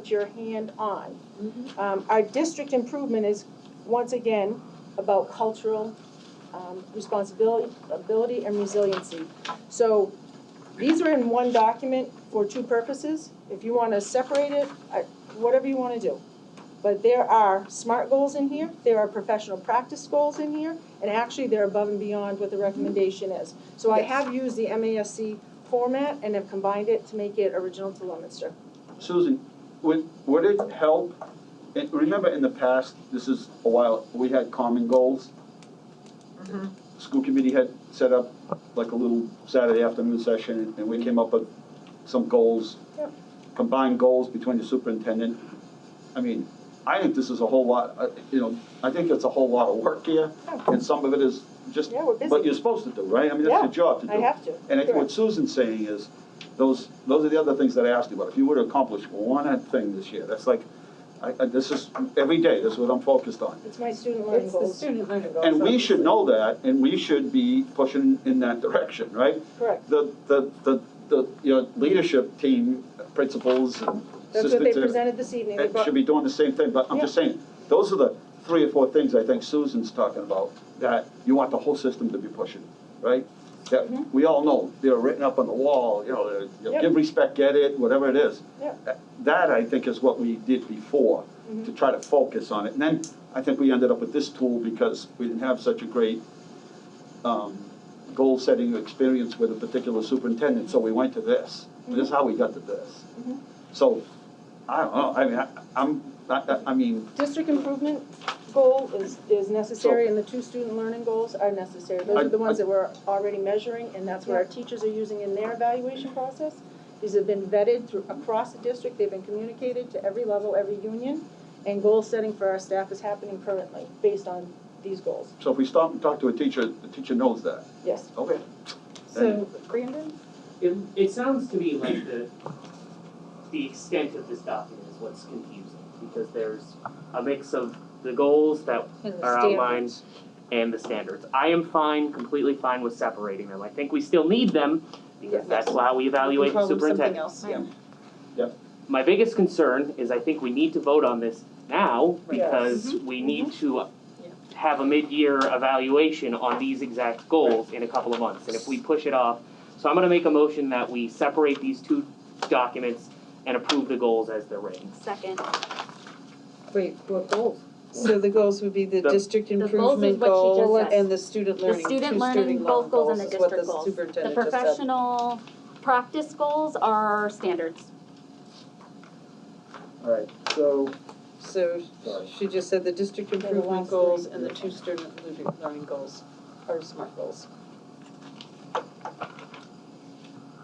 put your hand on. Um, our district improvement is, once again, about cultural, um, responsibility, ability and resiliency. So, these are in one document for two purposes. If you wanna separate it, I, whatever you wanna do. But there are SMART goals in here, there are professional practice goals in here, and actually, they're above and beyond what the recommendation is. So I have used the MASC format and have combined it to make it original to Leominster. Susan, would, would it help, and remember in the past, this is a while, we had common goals? School committee had set up like a little Saturday afternoon session, and we came up with some goals, Yep. combined goals between the superintendent. I mean, I think this is a whole lot, uh, you know, I think it's a whole lot of work here, and some of it is just Yeah, we're what busy, you're supposed to do, right? I mean, that's your Yeah, job to do. I have to. And I think Correct. what Susan's saying is, those, those are the other things that I asked you about. If you were to accomplish one thing this year, that's like, I, I, this is, every day, this is what I'm focused on. It's my student learning It's the goals, student learning goals. And we should know that, and we should be pushing in that direction, right? correct. The, the, the, the, you know, leadership team, principals and That's what they assistants, and- presented this evening. They and brought- should be doing the same thing, but I'm just saying, those are the three or four things I think Susan's talking about, that you want the whole system to be pushing, right? That, Mhm. we all know, they're written up on the wall, you know, they're- you know, Yep. give respect, get it, whatever it is. Yep. That- That, I think, is what we did before, to try to focus on it, and then I think we ended up with this tool because we didn't have such a great, um, goal-setting experience with a particular superintendent, so we went to this. This is how we got to this. Mhm. So, I don't know, I mean, I, I'm, I, I- I mean, District improvement goal is, is necessary, and the two student learning goals are necessary. Those I- are the ones I- that we're already measuring, and that's what our teachers are using in their evaluation process. These have been vetted through, across the district, they've been communicated to every level, every union, and goal setting for our staff is happening currently, based on these goals, so if we stop and talk to a teacher, the teacher knows that. yes. Okay. So, Brandon? It, it sounds to me like the, the extent of this document is what's confusing, because there's a mix of the goals that are outlined and the standards. I am fine, completely fine with separating them. I think we still need them, because Yes. that's how we evaluate Call them superintendent. Something else. My biggest concern is I think we need to vote on this now, Right. Yes. Mm-hmm. because we need to Yeah. have a mid-year evaluation on these exact goals in a couple of months, and if we push it off, so I'm gonna make a motion that we separate these two documents and approve the goals as they're written. Second. Wait, what goals? So the goals would be the The- district goals is improvement what she just goal said. and the student learning, two student student learning, learning both goals goals and the is what district the goals. The superintendent just said. professional practice goals are standards. Alright, so, So Sorry. she just said the district the improvement last goals three. and the two student learning- learning goals are SMART goals.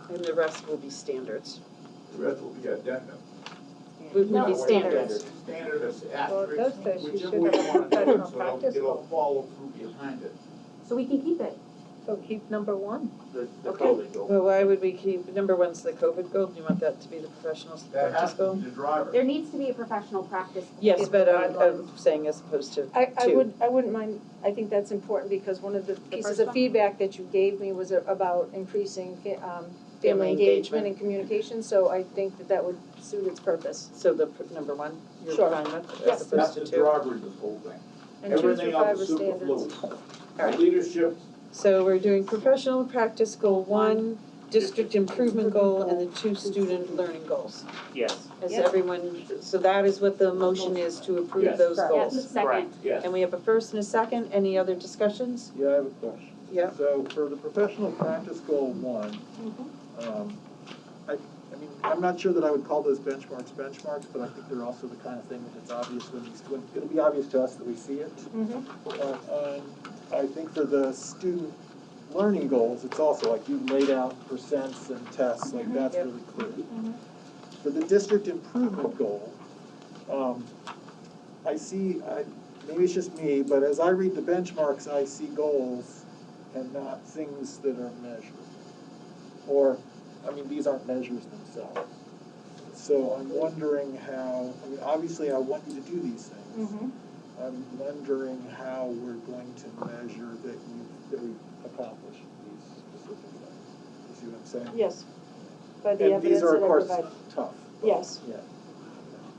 And the rest will be standards. The rest will be addendum. Would No, be That way standards. it's Standard as Well, it does say asterisk, she whichever should way you have a want to do professional it, so practice it'll, it'll goal. follow through behind it. So we can keep it. So keep number one. The, the Okay. COVID goal. Well, why would we keep, number one's the COVID goal, do you want that to be the professional That practice has to goal? be the driver. There needs to be a professional practice. Yes, goal. but uh, um, I'm, I'm saying as opposed to I, I Two. would, I wouldn't mind, I think that's important because one of the pieces first of one? feedback that you gave me was a- about increasing, fa- um, family Family engagement engagement. and communication, so I think that that would suit its purpose. So the pr- number one, you're Sure. fine with, Yes. as That's opposed the to two? driver of this whole thing. And two through Everything else five are is standards. superfluous. All right. Leadership, So we're doing professional practice goal one, district improvement goal, and the two student learning goals. Yes, Is Yeah. everyone, so that is what the motion is, to approve Yes. those Yes. goals. Yes, second. correct. yes. And we have a first and a second, any other discussions? yeah, I have a question. Yeah. So for the professional practice goal one, um, I, I mean, I'm not sure that I would call those benchmarks benchmarks, but I think they're also the kind of thing that it's obvious when, it's- when, it'll be obvious to us that we see it. Mhm. Uh, um, I think for the student learning goals, it's also like you laid out percents and tests, like that's really clear. For the district improvement goal, um, I see, I, maybe it's just me, but as I read the benchmarks, I see goals and not things that are measured. Or, I mean, these aren't measures themselves. So I'm wondering how, I mean, obviously I want you to do these things. Mhm. I'm wondering how we're going to measure that you, that we accomplished these specific things. You see what I'm saying? Yes, by the evidence that I And these are, provide. of course, tough. but, Yes. Yeah.